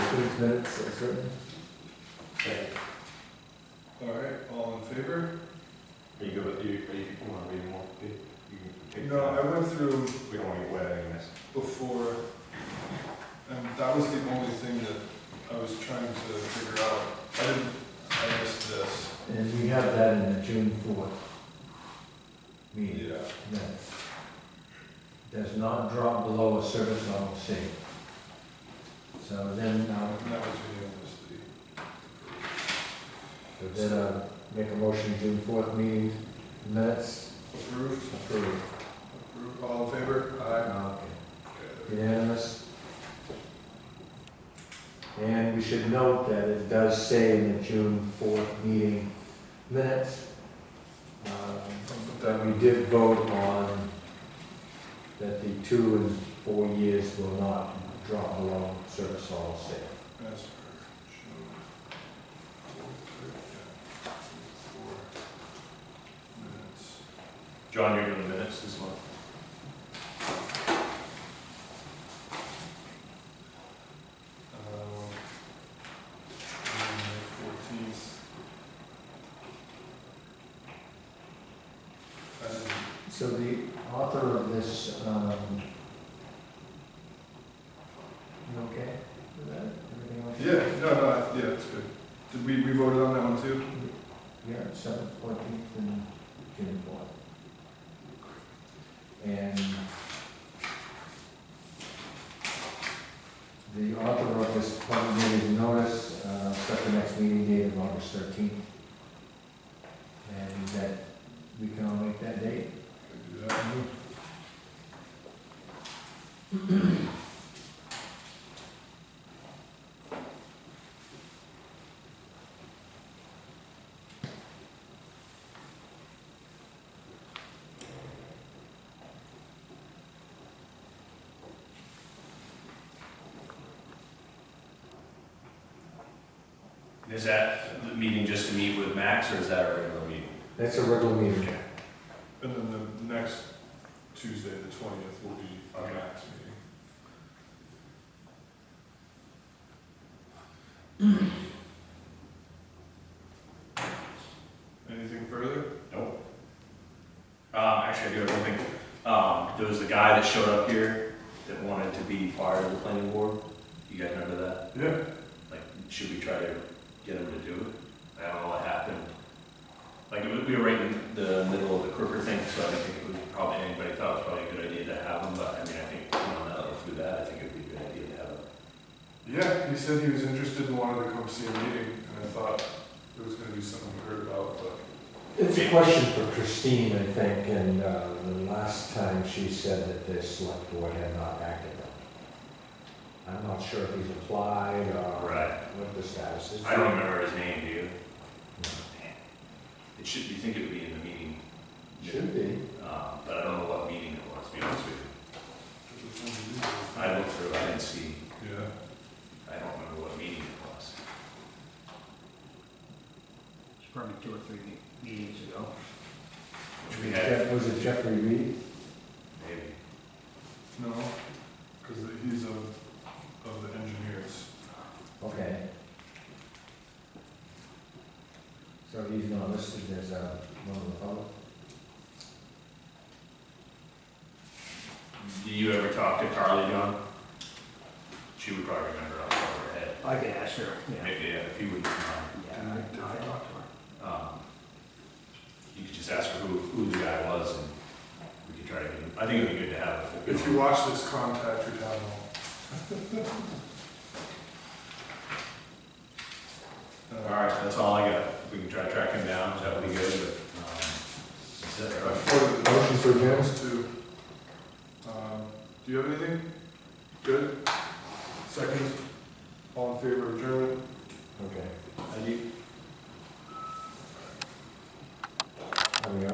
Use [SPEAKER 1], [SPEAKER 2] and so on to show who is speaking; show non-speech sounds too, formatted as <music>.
[SPEAKER 1] these minutes as written.
[SPEAKER 2] All right, all in favor?
[SPEAKER 3] Are you good with, you, are you, want to read them all? You- you can take
[SPEAKER 2] No, I
[SPEAKER 3] them.
[SPEAKER 2] went through
[SPEAKER 3] We don't want to get wet on this.
[SPEAKER 2] before, and that was the only thing that I was trying to figure out. I didn't, I missed this.
[SPEAKER 1] And we have that in the June fourth meeting
[SPEAKER 2] Yeah.
[SPEAKER 1] minutes. Does not drop below a service level C. So then, uh,
[SPEAKER 2] And that was unanimously.
[SPEAKER 1] then uh, make a motion, June fourth meeting minutes
[SPEAKER 2] Approved,
[SPEAKER 1] approved.
[SPEAKER 2] approved, all in favor? Aye.
[SPEAKER 1] Okay.
[SPEAKER 2] Okay.
[SPEAKER 1] Unanimous. And we should note that it does say in the June 4th meeting minutes um, that we did vote on that the two and four years will not drop below service level state.
[SPEAKER 2] As per June fourth, yeah, four minutes.
[SPEAKER 3] John, you're doing the minutes this month.
[SPEAKER 2] Fourteenth.
[SPEAKER 1] So the author of this, um, you okay with that? Everything okay?
[SPEAKER 2] Yeah, no, no, yeah, it's good. Did we, we voted on that one too?
[SPEAKER 1] Yeah, seventh, fourteenth, and June fourth. And the author of this public meeting notice, uh, set the next meeting date of August thirteenth. And that, we can all make that date.
[SPEAKER 2] Could do that.
[SPEAKER 3] Is that the meeting just to meet with Max, or is that a regular meeting?
[SPEAKER 1] That's a regular meeting.
[SPEAKER 2] And then the next Tuesday, the twentieth, will be our next meeting. <clears throat> Anything further?
[SPEAKER 3] Um, actually, I do have one thing. Um, there was the guy that showed up here that wanted to be part of the planning board. You guys remember that?
[SPEAKER 2] Yeah.
[SPEAKER 3] Like, should we try to get him to do it? I don't know what happened. Like, it was, we were right in the middle of the Crooker thing, so I don't think it was probably, anybody thought it was probably a good idea to have him, but I mean, I think, you know, now that we do that, I think it'd be a good idea to have him.
[SPEAKER 2] Yeah, he said he was interested and wanted to come see a meeting, and I thought it was gonna be something we heard about, but.
[SPEAKER 1] It's a question for Christine, I think, and, uh, the last time she said that the select board had not acted on it. I'm not sure if he's applied or.
[SPEAKER 3] Right.
[SPEAKER 1] What the status is.
[SPEAKER 3] I don't remember his name, do you?
[SPEAKER 1] No.
[SPEAKER 3] Man. It should, you think it would be in the meeting?
[SPEAKER 1] Should be.
[SPEAKER 3] Um, but I don't know what meeting it was, to be honest with you. I looked through, I didn't see,
[SPEAKER 2] Yeah.
[SPEAKER 3] I don't remember what meeting it was.
[SPEAKER 4] It's probably two or three me- meetings ago.
[SPEAKER 3] Which we had,
[SPEAKER 1] Was it Jeffrey Reed?
[SPEAKER 3] maybe.
[SPEAKER 2] No, because he's of, of the engineers.
[SPEAKER 1] Okay. So he's not listed as, uh, one of the public?
[SPEAKER 3] Do you ever talk to Carly, John? She would probably remember off the top of her head.
[SPEAKER 4] I could ask her, yeah.
[SPEAKER 3] Maybe, yeah, if you would, um,
[SPEAKER 4] Yeah, I, I talked to her.
[SPEAKER 3] um, you could just ask her who, who the guy was and we could try to, get him- I think it would be good to have. a full-
[SPEAKER 2] If you watch this, contact your town hall.
[SPEAKER 3] All right, that's all I got. If we can try to track him down, that would be good, but, um, that's it,
[SPEAKER 2] I
[SPEAKER 3] right?
[SPEAKER 2] forwarded the
[SPEAKER 1] Motion for adjournment?
[SPEAKER 2] to, um, do you have anything?